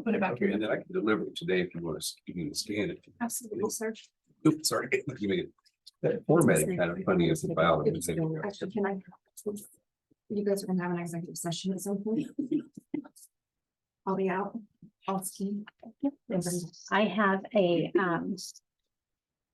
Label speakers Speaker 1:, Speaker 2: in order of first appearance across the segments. Speaker 1: put it back
Speaker 2: Okay,
Speaker 1: here.
Speaker 2: and then I can deliver it today if you want to, you can scan it.
Speaker 1: Absolutely, sir.
Speaker 2: Oops, sorry. You made it- That formatting kind of funny as a file. that was in there.
Speaker 3: Actually, can I? You guys are gonna have an executive session at some point. I'll be out, I'll ski.
Speaker 4: Yes. I have a, um.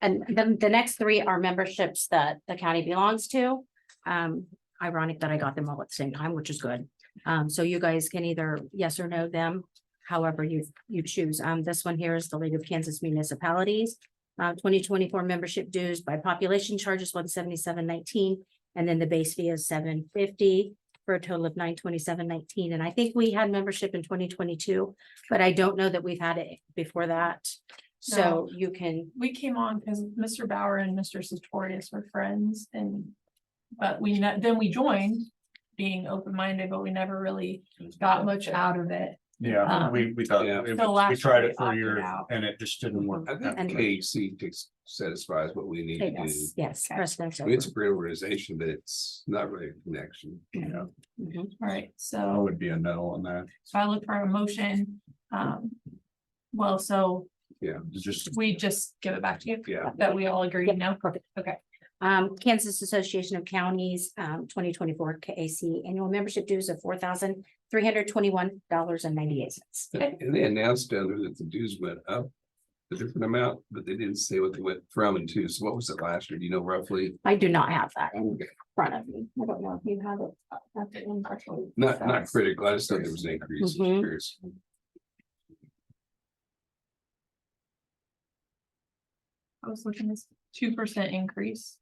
Speaker 4: And the, the next three are memberships that the county belongs to. Um, ironic that I got them all at the same time, which is good. Um, so you guys can either yes or no them, however you, you choose. Um, this one here is the League of Kansas Municipalities. Uh, twenty twenty-four membership dues by population charges one seventy-seven nineteen, and then the base fee is seven fifty. For a total of nine twenty-seven nineteen, and I think we had membership in twenty twenty-two. But I don't know that we've had it before that, so you can,
Speaker 1: We came on because Mr. Bauer and Mr. Sartorius were friends and. But we, ne- then we joined being open-minded, but we never really got much out of it.
Speaker 5: Yeah,
Speaker 1: Um,
Speaker 5: we, we thought,
Speaker 2: Yeah. Mhm.
Speaker 5: it
Speaker 1: So
Speaker 5: was- we
Speaker 1: last
Speaker 5: tried
Speaker 1: year
Speaker 5: it
Speaker 1: we
Speaker 5: for a
Speaker 1: opted
Speaker 5: year
Speaker 1: out.
Speaker 5: and it just didn't work.
Speaker 2: I
Speaker 5: That
Speaker 2: think
Speaker 5: way.
Speaker 2: KC takes- satisfies what we need to do.
Speaker 4: yes, yes,
Speaker 1: Okay.
Speaker 4: precedence.
Speaker 2: I mean, It's a great organization, but it's not really a connection.
Speaker 5: Yeah,
Speaker 4: Mhm.
Speaker 1: All right,
Speaker 5: I
Speaker 1: so,
Speaker 5: would be a no on that,
Speaker 1: so I look for a motion. Um, well, so
Speaker 5: just.
Speaker 1: we just give it back to you
Speaker 2: Yeah,
Speaker 1: that we all agree
Speaker 4: Yep,
Speaker 1: no?
Speaker 4: perfect.
Speaker 1: Okay.
Speaker 4: Um, Kansas Association of Counties, um, twenty twenty-four KAC annual membership dues of four thousand three hundred twenty-one dollars and ninety-eight cents.
Speaker 1: Okay.
Speaker 2: and they announced down there that the dues went up. A different amount, but they didn't say what they went from and to. So what was it last year? Do you know roughly?
Speaker 4: I do not have that in front of me. I don't know if you have it. uh, that's it in front of you.
Speaker 2: Not, not critical. I just thought there was an increase. I was
Speaker 4: Mhm.
Speaker 2: curious.
Speaker 1: I was looking at two percent increase.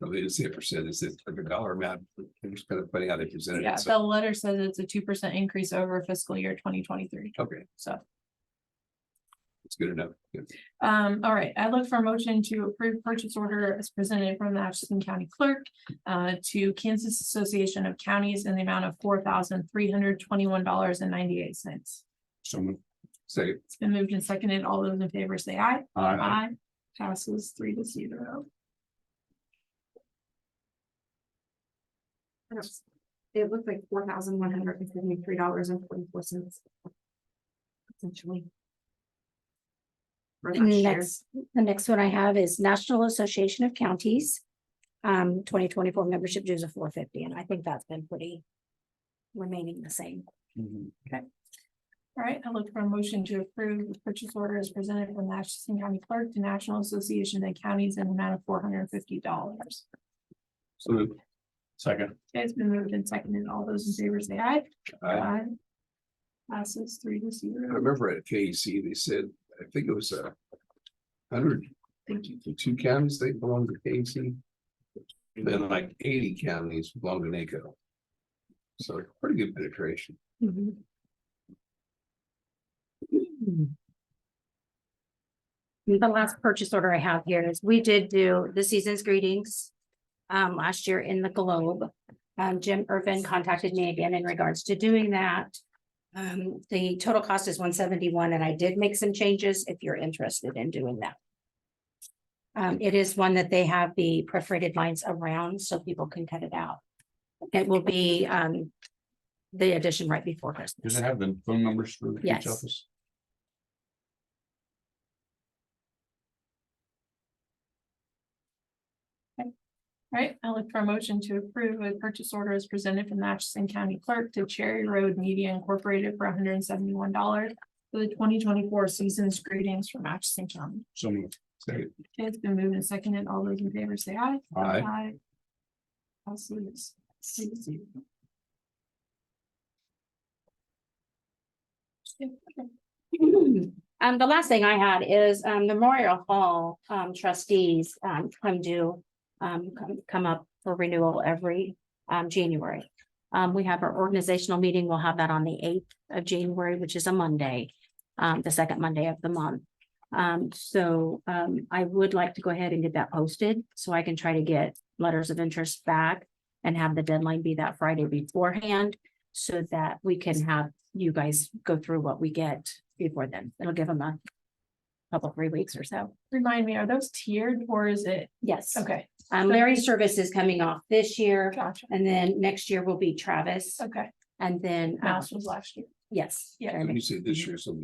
Speaker 2: No, They didn't say a percent, it's like a dollar amount. It was kind of funny how they presented
Speaker 1: Yeah,
Speaker 2: it. So,
Speaker 1: the letter says it's a two percent increase over fiscal year twenty twenty-three,
Speaker 2: okay,
Speaker 1: so.
Speaker 2: it's good enough. Good.
Speaker 1: Um, all right, I look for a motion to approve purchase order as presented from the Atchison County Clerk uh, to Kansas Association of Counties in the amount of four thousand three hundred twenty-one dollars and ninety-eight cents.
Speaker 5: Someone,
Speaker 2: Say,
Speaker 1: It's been moved and seconded. All those in favor say aye.
Speaker 5: I,
Speaker 1: Aye. Passes three to zero.
Speaker 3: It looked like four thousand one hundred and seventy-three dollars and forty-four cents. Essentially. For last year.
Speaker 4: Next, the next one I have is National Association of Counties. Um, twenty twenty-four membership dues of four fifty, and I think that's been pretty remaining the same.
Speaker 5: Mm-hmm.
Speaker 1: All right, I look for a motion to approve the purchase order as presented from the Atchison County Clerk to National Association of Counties in the amount of four hundred and fifty dollars.
Speaker 2: so,
Speaker 5: second,
Speaker 1: Okay, it's been moved and seconded. All those in favor say aye.
Speaker 2: I,
Speaker 1: Aye. Passes three to
Speaker 2: I
Speaker 1: zero.
Speaker 2: remember at KEC, they said, I think it was a hundred, two counties, they belong to KEC. Then like eighty counties belong to NACO. So pretty good penetration.
Speaker 3: Mm-hmm.
Speaker 4: Mhm. The last purchase order I have here is we did do the season's greetings. Um, last year in the Globe. Um, Jim Irvin contacted me again in regards to doing that. Um, the total cost is one seventy-one and I did make some changes if you're interested in doing that. Um, it is one that they have the perforated lines around so people can cut it out. It will be, um, the addition right before Christmas.
Speaker 5: does it have the phone numbers for the
Speaker 4: Yes.
Speaker 5: each office?
Speaker 1: All right, I look for a motion to approve a purchase order as presented from the Atchison County Clerk to Cherry Road Media Incorporated for hundred and seventy-one dollars for the twenty twenty-four season's greetings from Atchison County.
Speaker 5: Someone,
Speaker 2: Second,
Speaker 1: Okay, It's been moved and seconded. All those in favor say aye.
Speaker 2: Aye.
Speaker 1: Passes three to zero. Okay.
Speaker 4: Um, the last thing I had is, um, the Memorial Hall, um, trustees, um, come due, um, come, come up for renewal every, um, January. Um, we have our organizational meeting. We'll have that on the eighth of January, which is a Monday, um, the second Monday of the month. Um, so, um, I would like to go ahead and get that posted so I can try to get letters of interest back and have the deadline be that Friday beforehand so that we can have you guys go through what we get before then. It'll give them a couple, three weeks or so.
Speaker 1: Remind me, are those tiered or is it?
Speaker 4: Yes.
Speaker 1: Okay,
Speaker 4: Um, Larry's service is coming off this year
Speaker 1: gotcha.
Speaker 4: and then next year will be Travis
Speaker 1: Okay,
Speaker 4: and then. uh,
Speaker 1: mouse was last year.
Speaker 4: Yes.
Speaker 1: Yeah.
Speaker 4: Jeremy.
Speaker 2: when you say this year, so